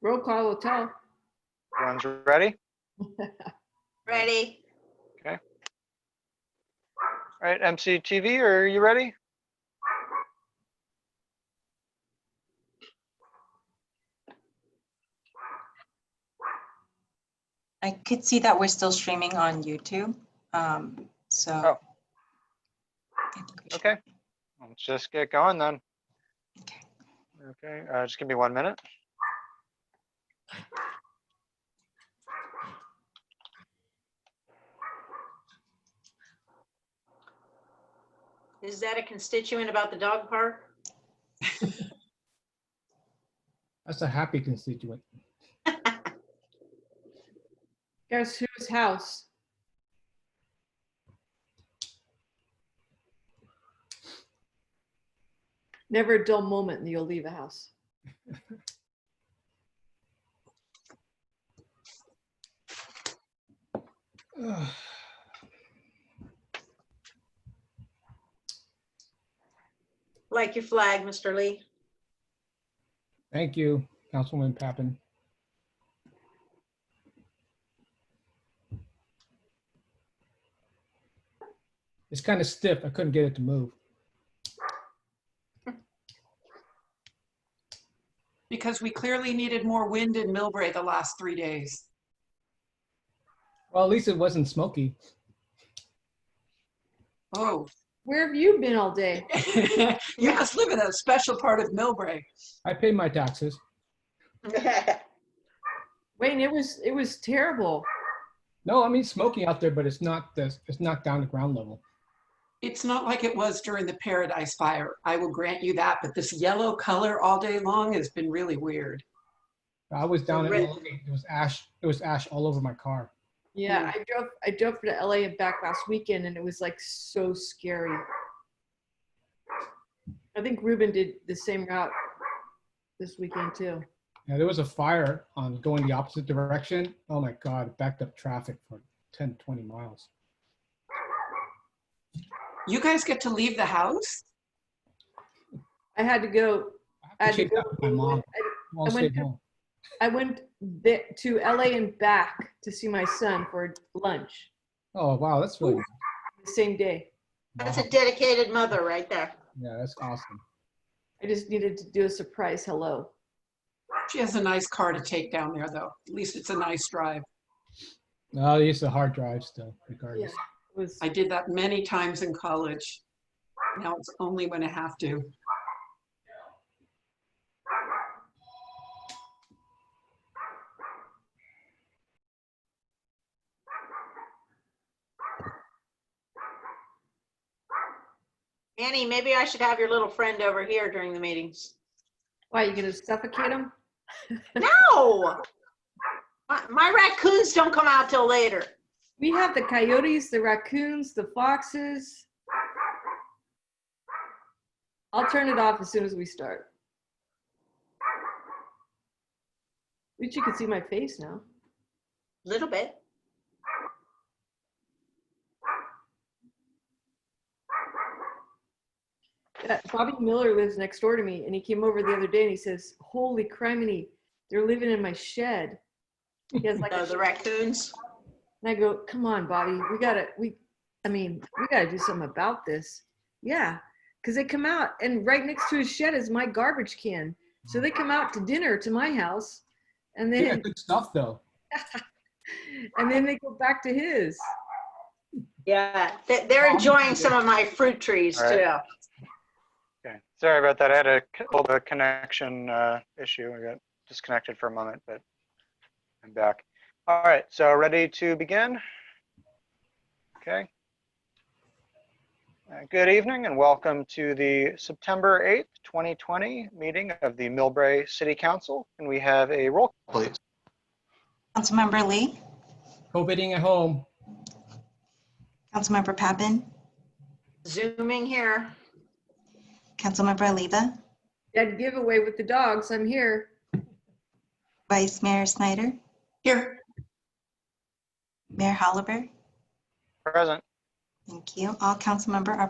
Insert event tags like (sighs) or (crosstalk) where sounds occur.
Roll call will tell. Everyone's ready? Ready? All right, MCTV, are you ready? I could see that we're still streaming on YouTube, um, so. Oh. I think we should- Okay. Let's just get going then. Okay. Okay, uh, just give me one minute. Is that a constituent about the dog park? That's a happy constituent. (sighs) Guess whose house? Never a dull moment and you'll leave a house. Ugh. Like your flag, Mr. Lee. Thank you, Councilwoman Pappen. It's kind of stiff. I couldn't get it to move. Because we clearly needed more wind in Millbrae the last three days. Well, at least it wasn't smoky. Oh, (laughs) Where have you been all day? you must live in a special part of Millbrae. I paid my taxes. Wayne, it was, it was terrible. No, I mean smoky out there, but it's not this. It's not down to ground level. It's not like it was during the Paradise Fire. I will grant you that, but this yellow color all day long has been really weird. I was down at Red. LA. It was ash. It was ash all over my car. Yeah, I drove, I drove to LA and back last weekend and it was like so scary. I think Ruben did the same route this weekend too. Yeah, there was a fire on going the opposite direction. Oh my God, it backed up traffic for 10, 20 miles. You guys get to leave the house? I had to go, I I have to had check to out with my mom. I- Mom I went stayed to- home. I went th- to LA and back to see my son for lunch Oh, wow, that's really, the same day. That's wow. a dedicated mother right there. yeah, that's awesome. I just needed to do a surprise hello. She has a nice car to take down there, though. At least it's a nice drive. No, it's a hard drive still, regardless. It was I did that many times in college. Now it's only when I have to. Annie, maybe I should have your little friend over here during the meetings. why you gonna suffocate him? No! My- My raccoons don't come out till later. We have the coyotes, the raccoons, the foxes. I'll turn it off as soon as we start. At least you can see my face now. Little bit. Uh, Bobby Miller lives next door to me, and he came over the other day and he says, "Holy criminy, they're living in my shed." He has (laughs) like, No, a Oh, the shed. raccoons. and I go, "Come on, Bobby, we gotta, we, I mean, we gotta do something about this." Yeah, because they come out, and right next to his shed is my garbage can, so they come out to dinner to my house, and Yeah, then good stuff, though. and then they go back to his. Yeah, they- they're enjoying some of my fruit trees All too. Okay, sorry about that. I had a c- little bit of connection uh, issue. I got disconnected for a moment, but I'm back. All right, so ready to begin? Okay. Uh, Good evening and welcome to the September 8th, 2020 meeting of the Millbrae City Council. And we have a roll, call, please. Councilmember Lee, COVIDing at home. Councilmember Pappen, Zooming here. Councilmember Aliva, Dead giveaway with the dogs. I'm here. Vice Mayor Snyder, Here, Mayor Holliver. Present. Thank you. All council member are